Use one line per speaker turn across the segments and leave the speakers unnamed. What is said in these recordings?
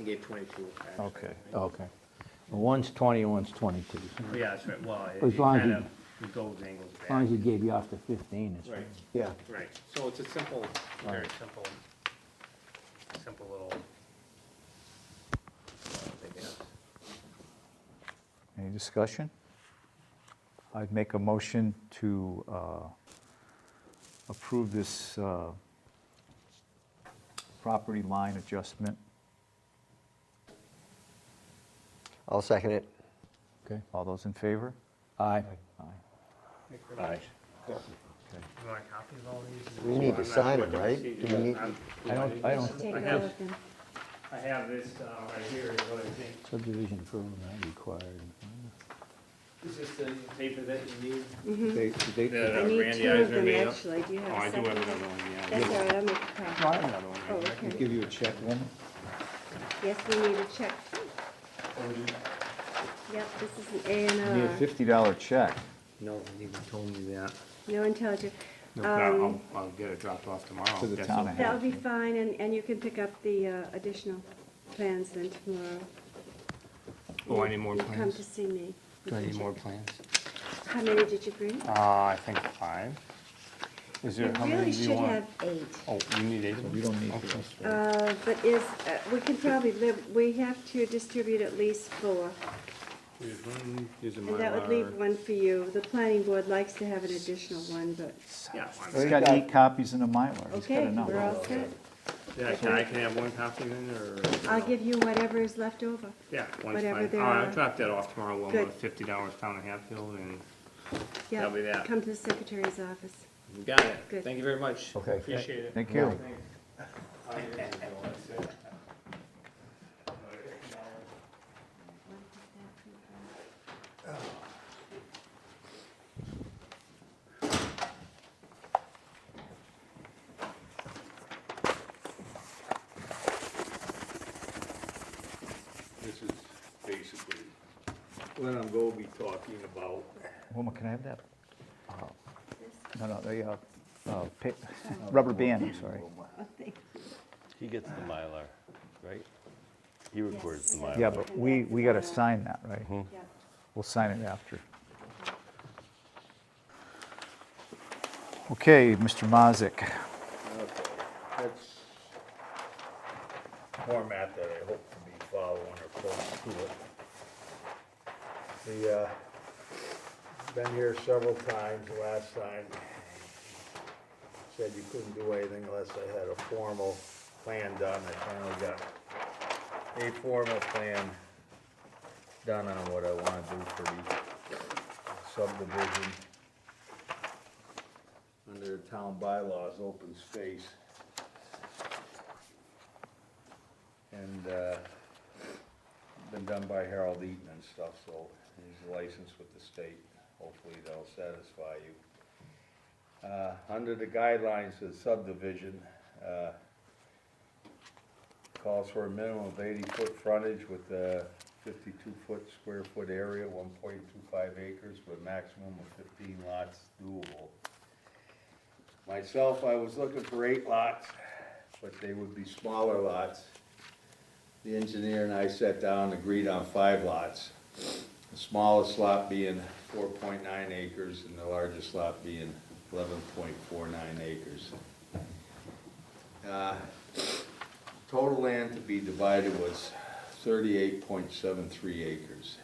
I gave 22, actually.
Okay, okay. One's 20, one's 22. As
Yeah, that's right, well, it
As long as
kind
you-
of, it goes angles
long
back.
as you gave you off the 15, it's
Right,
fine.
Yeah,
right, so it's a simple, very
Alright.
simple, simple little. uh, I guess.
Any discussion? I'd make a motion to uh, approve this uh, property line adjustment.
I'll second it.
okay?
All those in favor?
Aye.
Aye.
Okay.
You want a copy of all these?
We need to
I'm not
sign
sure
it,
what
right?
the
Do we need-
procedure is.
I don't, I don't,
Take
I
a
have- uh,
look and
I have this uh, right here, is what I think.
subdivision approval not required.
Is this the paper that you need?
They- they-
I need two of them, actually, do you
Oh,
have
I
a
do have
second?
another one, yeah.
That's all right, I'll make a copy.
I have another one.
Oh,
right
okay.
Give you a check. One,
Yes, we need a check too. Yep, this is an A
you need a
and R.
$50 check.
there. No one even told me that.
No intelligent.
No,
Um,
I'll, I'll get it dropped off tomorrow.
To the
That's
town
okay.
ahead.
That'll be fine, and, and you can pick up the uh, additional plans then tomorrow.
Oh, I need more
You Come to
plans?
see me.
Do I need more plans?
How many did you bring?
Uh, I think five. Is
You
there, how many
really
do you
should
want?
have eight.
Oh, you need eight of them?
You don't need
Okay.
Uh, But is, uh, we can probably live, we have to distribute at least four.
Here's one, here's a
And that would leave
Mylar.
one for you. The planning board likes to have an additional one, but,
Yeah,
He's
one.
got eight copies in a Mylar. He's got
okay,
enough.
we're all set.
Yeah, can I, can I have one copy then, or?
I'll give you whatever is left over.
Yeah, one's
Uh, whatever
fine.
there
All right, I'll
are.
drop that off tomorrow, one
Good.
with fifty dollars down in Hatfield, and
Yeah,
That'll be that.
Come to the secretary's office.
you got it.
Good.
Thank you very much.
Okay.
Appreciate it.
Thank you.
This is basically what I'm gonna be talking about.
Wilma, can I have that? uh, No, no, the uh, uh, pa- rubber band, I'm sorry.
He gets the Mylar, right? He records the Mylar.
Yeah, but we, we got to sign that, right?
Yeah.
We'll sign it after. Okay, Mr. Mazick.
That's format that I hope to be following or close to it. The, uh, been here several times, The last time said you couldn't do anything unless I had a formal plan done. I finally got a formal plan done on what I wanna do for the subdivision under the town bylaws, open space. And, uh, been done by Harold Eaton and stuff, so he's licensed with the state. Hopefully they'll satisfy you. Uh, under the guidelines of subdivision, uh, calls for a minimum of eighty-foot frontage with a fifty-two foot square foot area, one point two five acres, with maximum of fifteen lots doable. Myself, I was looking for eight lots, but they would be smaller lots. The engineer and I sat down and agreed on five lots. The smallest lot being four point nine acres and the largest lot being eleven point four nine acres. Uh, Total land to be divided was thirty-eight point seven three acres.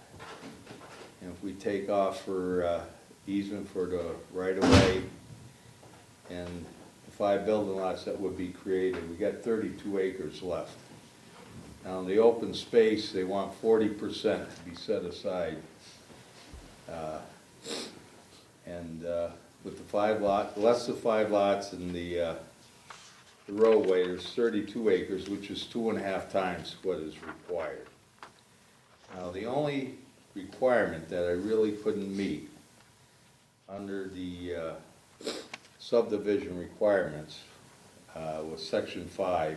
And if we take off for uh, easement for the right-of-way and the five building lots that would be created, we got thirty-two acres left. Now, in the open space, they want forty percent to be set aside. Uh, And uh, with the five lot, less of five lots and the uh, the roadway, there's thirty-two acres, which is two and a half times what is required. Now, the only requirement that I really couldn't meet under the uh, subdivision requirements uh, was section five,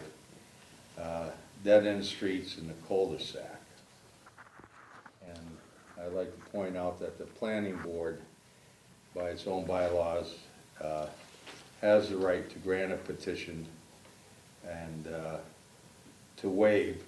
uh, dead-end streets in the cul-de-sac. And I'd like to point out that the planning board, by its own bylaws, uh, has the right to grant a petition and uh, to waive